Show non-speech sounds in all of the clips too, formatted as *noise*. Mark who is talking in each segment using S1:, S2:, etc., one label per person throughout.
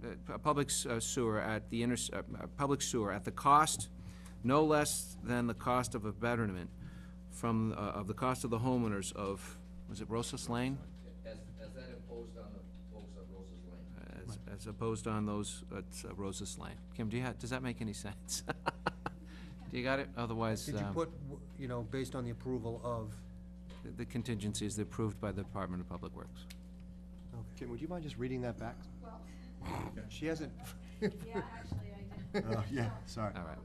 S1: pu- public s- uh, sewer at the inter, uh, uh, public sewer at the cost no less than the cost of a betterment from, uh, of the cost of the homeowners of, was it Rosas Lane?
S2: As, as that imposed on the folks on Rose's Lane.
S1: As, as opposed on those at uh, Rosas Lane. Kim, do you have, does that make any sense? *laughs* Do you got it? Otherwise,
S3: Did you
S1: um,
S3: put, w- you know, based on the approval of,
S1: the- the contingency is approved by the Department of Public Works.
S3: okay,
S4: Kim, would you mind just reading that back? *laughs*
S5: Well,
S3: she *laughs* hasn't,
S5: yeah, actually, I did.
S4: Oh, yeah, sorry.
S1: All right.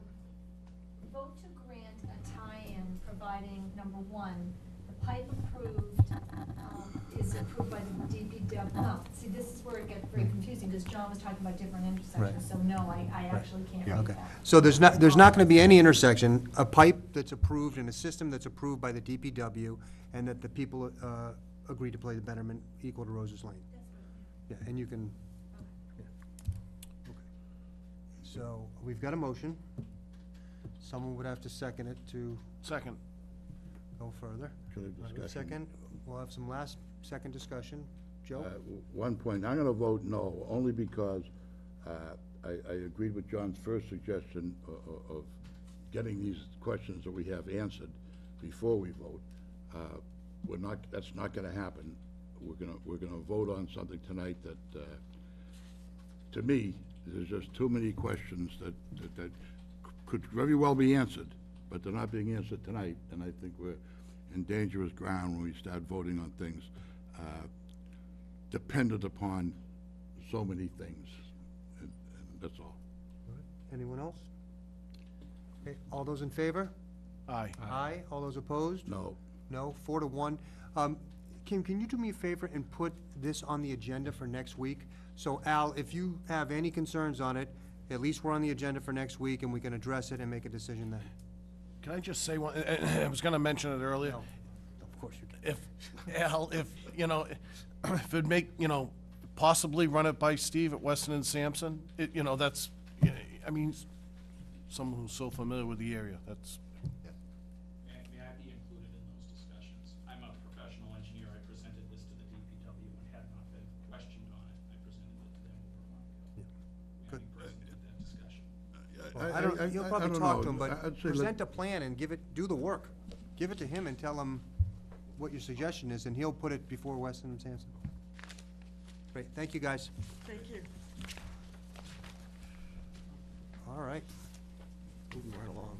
S5: Vote to grant a tie-in providing, number one, the pipe approved, um, is approved by the DPW. No, see, this is where it gets very confusing, because John was talking about different intersections,
S3: Right.
S5: so no, I, I actually can't
S3: yeah,
S5: read
S3: okay.
S5: that.
S3: So there's not, there's not gonna be any intersection, a pipe that's approved and a system that's approved by the DPW, and that the people, uh, agree to play the betterment equal to Rose's Lane. Yeah, and you can, yeah, okay. So, we've got a motion. Someone would have to second it to
S4: Second.
S3: go further.
S6: Can I
S3: All right,
S6: discussion?
S3: Second, we'll have some last, second discussion.
S6: Uh,
S3: Joe?
S6: w- One point, I'm going to vote no, only because uh, I I agreed with John's first suggestion o- o- of getting these questions that we have answered before we vote. Uh, We're not, that's not going to happen. We're going to, we're going to vote on something tonight that, uh, to me, there's just too many questions that, that- that could very well be answered, but they're not being answered tonight, and I think we're in dangerous ground when we start voting on things. Uh, dependent upon so many things. and- and That's all.
S3: Anyone else? Okay, all those in favor?
S4: Aye.
S3: Aye. All those opposed?
S6: No.
S3: No, four to one. Um, Kim, can you do me a favor and put this on the agenda for next week? So Al, if you have any concerns on it, at least we're on the agenda for next week and we can address it and make a decision then.
S7: Can I just say one, *clears throat* I was gonna mention it earlier.
S3: No, Of course you can.
S7: If, Al, if, you know, *clears throat* if it'd make, you know, possibly run it by Steve at Weston and Sampson, it, you know, that's, I mean, someone who's so familiar with the area, that's,
S8: May, may I be included in those discussions? I'm a professional engineer, I presented this to the DPW and had not been questioned on it, I presented it to them over a month ago.
S3: Good.
S8: May I be present at that discussion?
S3: Well, I don't, you'll
S6: I- I- I
S3: probably
S6: don't
S3: talk
S6: know.
S3: to him,
S6: I- I'd
S3: but
S6: say let-
S3: present a plan and give it, do the work. Give it to him and tell him what your suggestion is, and he'll put it before Weston and Sampson. Great, thank you, guys. Thank you. All right. Moving right along.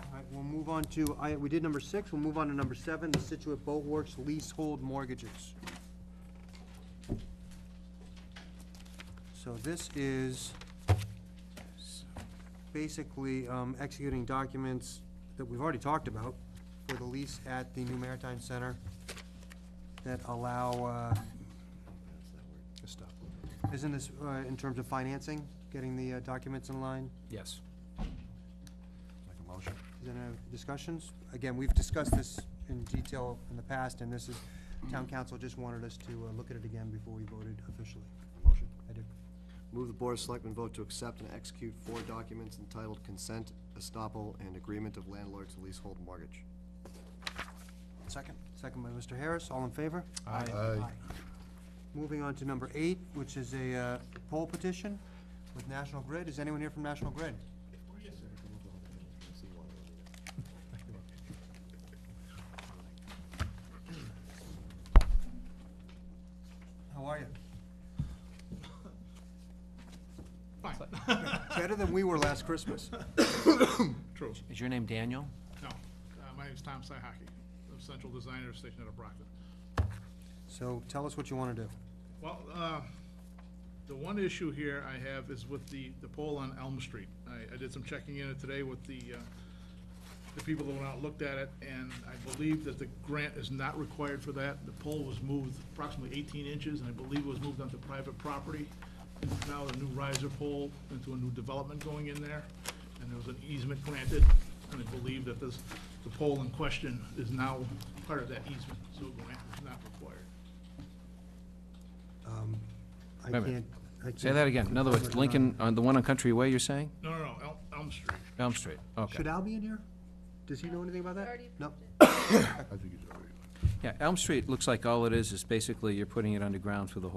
S3: All right, we'll move on to, I, we did number six, we'll move on to number seven, the Situate Boat Works leasehold mortgages. So this is basically um, executing documents that we've already talked about for the lease at the new Maritime Center that allow, uh, isn't this uh, in terms of financing, getting the uh, documents in line?
S1: Yes.
S3: Is there any discussions? Again, we've discussed this in detail in the past, and this is, town council just wanted us to uh, look at it again before we voted officially. Motion? I do.
S4: Move the Board of Selectmen vote to accept and execute four documents entitled Consent, Estoppel, and Agreement of Landlord to Leasehold Mortgage.
S3: Second. Second by Mr. Harris, all in favor?
S6: Aye.
S3: Moving on to number eight, which is a uh, poll petition with National Grid. Is anyone here from National Grid? How are you? Fine. Better than we were last Christmas.
S9: True.
S1: Is your name Daniel?
S9: No. Uh, My name is Tom Sihaki. I'm central designer, stationed out of Brockton.
S3: So tell us what you want to do.
S9: Well, uh, the one issue here I have is with the, the pole on Elm Street. I, I did some checking in it today with the, uh, the people that went out and looked at it, and I believe that the grant is not required for that. The pole was moved approximately eighteen inches, and I believe it was moved onto private property. It's now a new riser pole into a new development going in there, and there was an easement granted, and I believe that this, the pole in question is now part of that easement, so grant is not required.
S3: I
S1: Wait a minute.
S3: can't, I
S1: Say
S3: can't-
S1: that again. In other words, Lincoln, on the one on Country Way, you're saying?
S9: No, no, no, Elm, Elm Street.
S1: Elm Street, okay.
S3: Should Al be in here? Does he know anything about that?
S5: Already
S3: No?
S6: I think he's already.
S1: Yeah, Elm Street looks like all it is, is basically you're putting it underground through the whole